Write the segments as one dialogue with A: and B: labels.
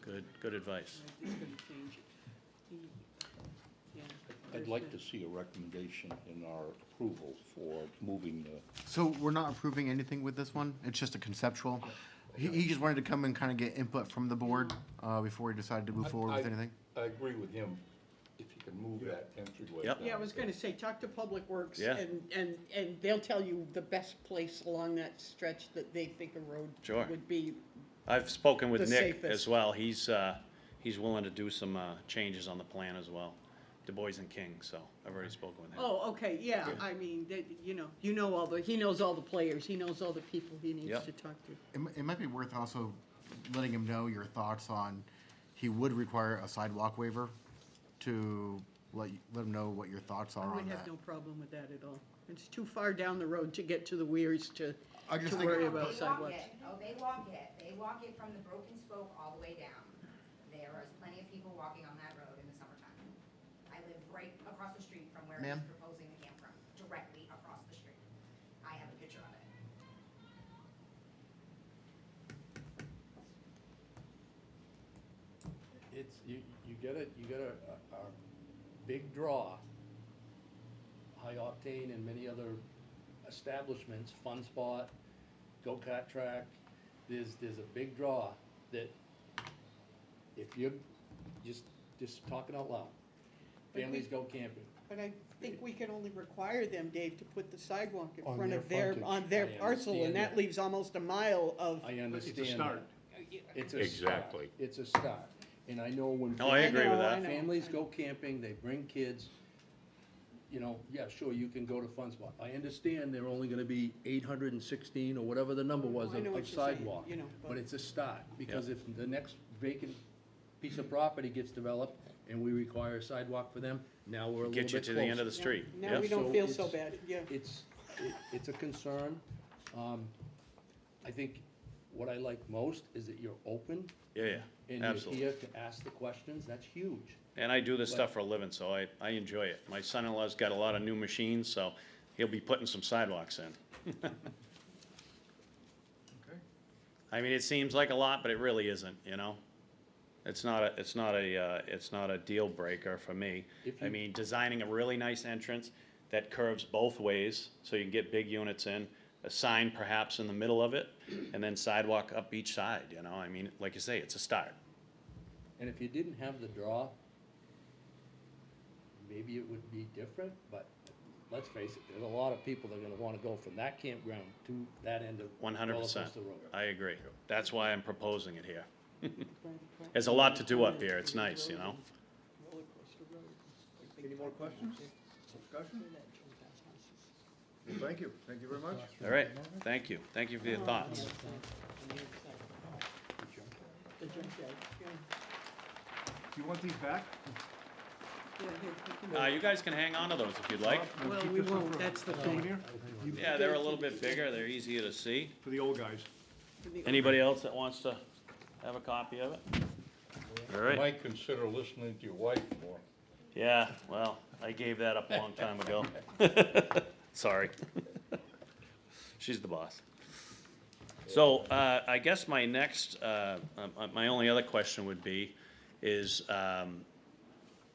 A: Good, good advice.
B: It's gonna change it. Yeah.
C: I'd like to see a recommendation in our approval for moving the,
D: So we're not approving anything with this one? It's just a conceptual? He, he just wanted to come and kind of get input from the board, uh, before he decided to move forward with
C: I-
D: anything?
C: I agree with him, if you can move that entryway
A: Yep.
C: down.
B: Yeah, I was gonna say, talk to Public Works
A: Yeah.
B: and, and, and they'll tell you the best place along that stretch that they think a road
A: Sure.
B: would be.
A: I've spoken
B: The
A: with Nick as
B: safest.
A: well. He's, uh, he's willing to do some, uh, changes on the plan as well. Du Bois and King, so I've already spoken with him.
B: Oh, okay, yeah, I mean, that, you know, you know all the, he knows all the players, he knows all the people he needs
A: Yep.
B: to talk to.
D: It, mi- it might be worth also letting him know your thoughts on, he would require a sidewalk waiver to let, you- let him know what your thoughts are
B: I would
D: on
B: have
D: that.
B: no problem with that at all. It's too far down the road to get to the weirs to,
D: I just
B: to
D: think-
B: worry
D: No,
E: They
B: about
E: walk
B: sidewalks.
E: it. Oh, they walk it, they walk it from the Broken Spoke all the way down. There is plenty of people walking on that road in the summertime. I live right across the street from where
D: Ma'am?
E: he's proposing the camp from, directly across the street. I have a picture of it.
F: It's, you, you get a, you get a, a, a big draw. High Octane and many other establishments, Fun Spot, Go-Kart Track, there's, there's a big draw that if you're, just, just talking out loud,
B: But we-
F: families go camping.
B: But I think we can only require them, Dave, to put the sidewalk in
F: On
B: front
F: their
B: of their,
F: frontage.
B: on their
F: I
B: parcel, and
F: understand
B: that
F: that.
B: leaves almost a mile of.
F: I understand that.
G: start.
B: Oh,
F: It's a start.
C: Exactly.
F: It's a start. And I know when.
A: No, I
F: families-
A: agree with
B: know,
A: that.
B: I know,
F: Families
B: I
F: go camping, they bring kids, you know, yeah, sure, you can go to Fun Spot. I understand they're only gonna be eight hundred and sixteen or whatever the number was
B: I
F: of
B: know what
F: of
B: you're saying,
F: sidewalk.
B: you know, but-
F: But it's a start, because if the next vacant piece of property gets developed and we require a sidewalk for them, now we're a little bit
A: Get you
F: closer.
A: to the end of the street.
B: Now we
A: Yeah.
B: don't
F: So
B: feel so
F: it's-
B: bad, yeah.
F: It's, it- it's a concern. Um, I think what I like most is that you're open
A: Yeah,
F: and
A: yeah,
F: you're
A: absolutely.
F: here to ask the questions. That's huge.
A: And I do this stuff for a living, so I, I enjoy it. My son-in-law's got a lot of new machines, so he'll be putting some sidewalks in. I mean, it seems like a lot, but it really isn't, you know? It's not a, it's not a, uh, it's not a deal breaker for me.
F: If
A: I
F: you-
A: mean, designing a really nice entrance that curves both ways, so you can get big units in, a sign perhaps in the middle of it, and then sidewalk up each side, you know? I mean, like you say, it's a start.
F: And if you didn't have the draw, maybe it would be different, but let's face it, there's a lot of people that are gonna wanna go from that campground to that end of.
A: One hundred percent.
F: Rollercoaster road.
A: I agree. That's why I'm proposing it here.
B: Right, right.
A: There's a lot to do up here. It's nice, you know?
B: Roller coaster road.
G: Any more questions? Discussion? Well, Thank you, thank you very much.
A: All right, thank you. Thank you for your thoughts.
B: The junkyard, yeah.
G: Do you want these back?
B: Yeah, here, you can-
A: Uh, you guys can hang on to those if you'd like.
G: We'll
B: Well,
G: keep
B: we
G: this one
B: won't,
G: for-
B: that's the thing.
G: souvenir
A: Yeah, they're a little bit bigger. They're easier to see.
G: For the old guys.
A: Anybody else that wants to have a copy of it? All right.
C: Might consider listening to your wife more.
A: Yeah, well, I gave that up a long time ago. Sorry. She's the boss. So, uh, I guess my next, uh, um, uh, my only other question would be, is, um,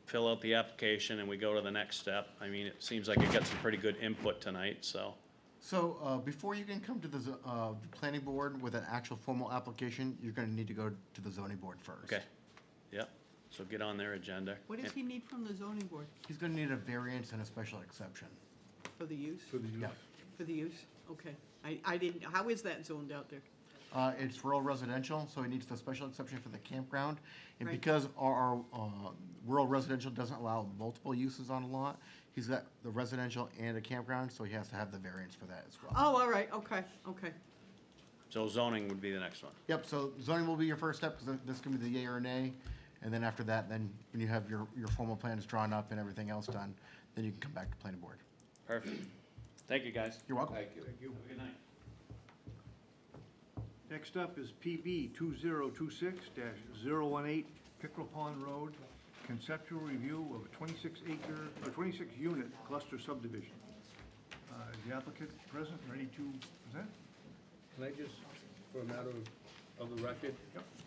A: fill out the application and we go to the next step. I mean, it seems like it got some pretty good input tonight, so.
D: So, uh, before you can come to the, zo- uh, the planning board with an actual formal application, you're gonna need to go to the zoning board first.
A: Okay, yep, so get on their agenda.
B: What does he need from the zoning board
D: He's gonna need a variance and a special exception.
B: for the use,
G: For the use.
D: Yeah.
B: for the use? Okay, I, I didn't, how is that zoned out there?
D: Uh, it's rural residential, so it needs the special exception for the campground. And
B: Right.
D: because our, uh, rural residential doesn't allow multiple uses on a lot, he's got the residential and a campground, so he has to have the variance for that as well.
B: Oh, all right, okay, okay.
A: So zoning would be the next one.
D: Yep, so zoning will be your first step, because this can be the yay or nay. And then after that, then when you have your, your formal plans drawn up and everything else done, then you can come back to planning board.
A: Perfect. Thank you, guys.
D: You're welcome.
C: Thank you.
G: Thank you.
A: Good night.
G: Next up is PB two zero two six 18 Pickerel Pond Road, conceptual review of a twenty-six acre, or twenty-six unit cluster subdivision. Uh, is the applicant present, ready to present?
F: Can I just, for a matter of, of the record?
G: Yep.